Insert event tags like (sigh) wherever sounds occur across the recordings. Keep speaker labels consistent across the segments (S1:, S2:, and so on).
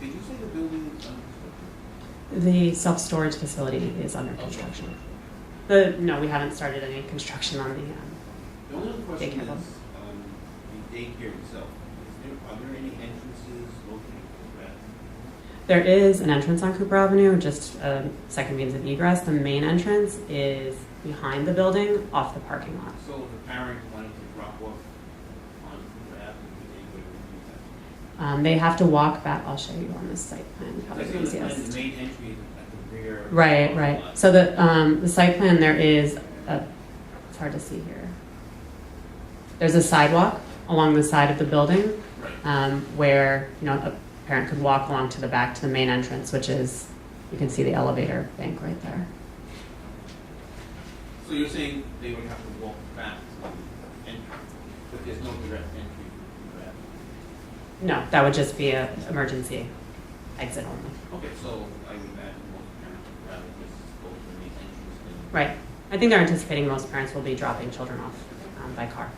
S1: Did you say the building um, is under construction?
S2: The self-storage facility is under construction. The, no, we haven't started any construction on the, um,
S1: The only other question
S2: Daycare
S1: is,
S2: home.
S1: um, the daycare itself, is there, are there any entrances located for that?
S2: There is an entrance on Cooper Avenue, just um, second means of egress. The main entrance is behind the building, off the parking lot.
S1: So if a parent wanted to drop off on Cooper Avenue, would they would use that?
S2: Um, they have to walk back. I'll show you on the site plan. Probably
S1: That's
S2: the
S1: on the plan,
S2: easiest.
S1: the main entry is at the rear.
S2: Right,
S1: of the
S2: right.
S1: lot.
S2: So the um, the site plan there is a. It's hard to see here. There's a sidewalk along the side of the building
S1: Right.
S2: um, where you know a parent could walk along to the back to the main entrance, which is you can see the elevator bank right there.
S1: So you're saying they would have to walk back to the entry, but there's no direct entry to Cooper Avenue?
S2: No, that would just be a emergency exit only.
S1: Okay, so I would imagine most parents would rather just go to the main entrance than.
S2: Right. I think they're anticipating most parents will be dropping children off um, by car.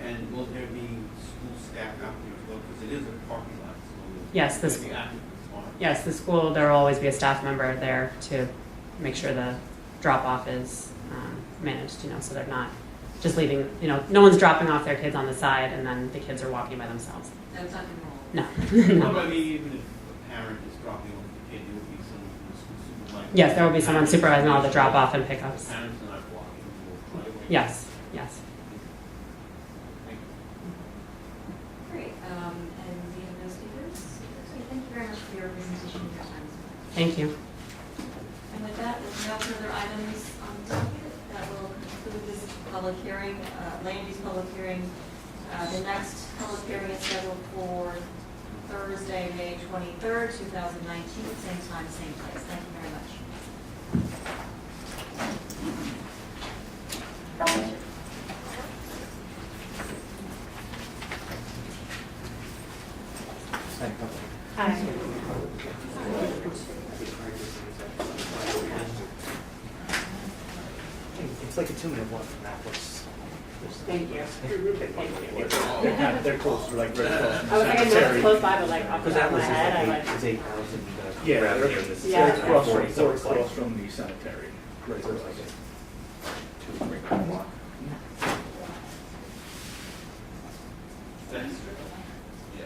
S1: And will there be school staff out there as well, because it is a parking lot, so.
S2: Yes, this-
S1: The applicants are.
S2: Yes, the school, there will always be a staff member there to make sure the drop off is um, managed, you know, so they're not just leaving, you know, no one's dropping off their kids on the side and then the kids are walking by themselves.
S3: That's not the rule.
S2: No. (laughs)
S1: Well, I mean, even if a parent is dropping off the kid, there will be someone from the school supervising.
S2: Yes, there will be someone supervising all the drop off and pickups.
S1: Parents are not walking, will drive away.
S2: Yes, yes.
S1: Thank you.
S3: Great, um, and we have no speakers? Okay, thank you very much for your presentation and your time.
S2: Thank you.
S3: And with that, with no further items on the docket, that will conclude this public hearing, uh, land use public hearing. Uh, the next public hearing is scheduled for Thursday, May twenty-third, two thousand nineteen, same time, same place. Thank you very much.
S4: It's like a two-minute walk from that place. Thank you. They're, they're close, they're like very close.
S5: I was like, I know it's close by, but like off the
S4: Because
S5: top of
S4: that
S5: my
S4: was
S5: head, I like.
S4: like eight, it's eight thousand. uh,
S6: Yeah,
S4: around
S6: they're-
S4: here, this is-
S5: Yeah.
S6: They're across
S4: Yeah.
S6: from, they're across from the cemetery. Right, there's like a two, three mile walk.
S1: Thanks. Yeah.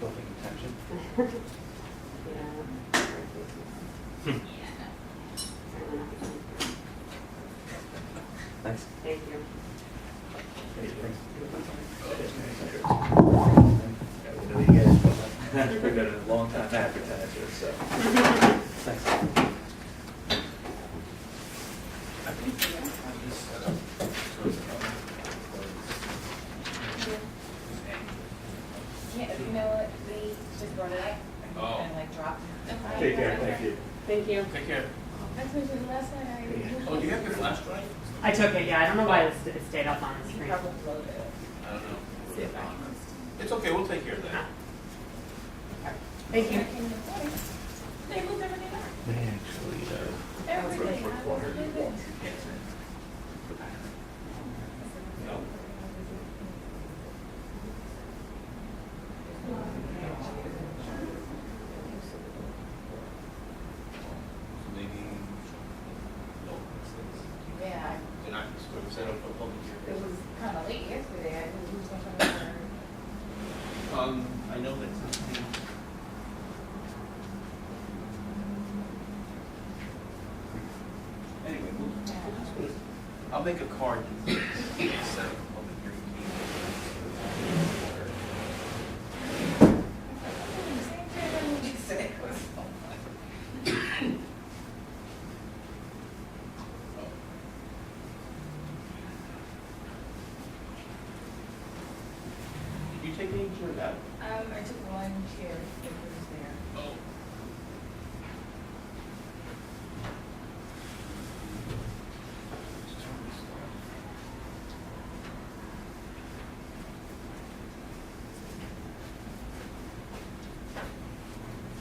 S4: Building intention. (laughs)
S5: (laughs)
S4: Hmm. Thanks.
S5: Thank you.
S6: Yeah, we know you guys, but we've been a long time advertiser, so.
S4: Thanks.
S7: Yeah, you know what, they just brought it up
S1: Oh.
S7: and like dropped. it.
S6: Take care, thank you.
S5: Thank you.
S1: Take care.
S7: That's what I did last night, I.
S1: Oh, do you have your flash drive?
S2: I took it, yeah. I don't know why it's- it stayed up on the
S7: You
S2: screen.
S7: probably wrote it.
S1: I don't
S7: See if I
S1: know.
S7: can- Ah.
S1: It's okay, we'll take care of that.
S2: Thank you.
S7: They moved everything up.
S6: They actually, uh,
S7: Everything.
S6: for quarter.
S7: They did.
S1: No. So maybe, no,
S7: Yeah,
S1: they're not set up for public
S7: it
S1: hearing.
S7: was kind of late yesterday, I moved something over.
S1: Um, I know that's something. (laughs) Anyway, we'll, we'll just put it- I'll make a card.
S7: Um,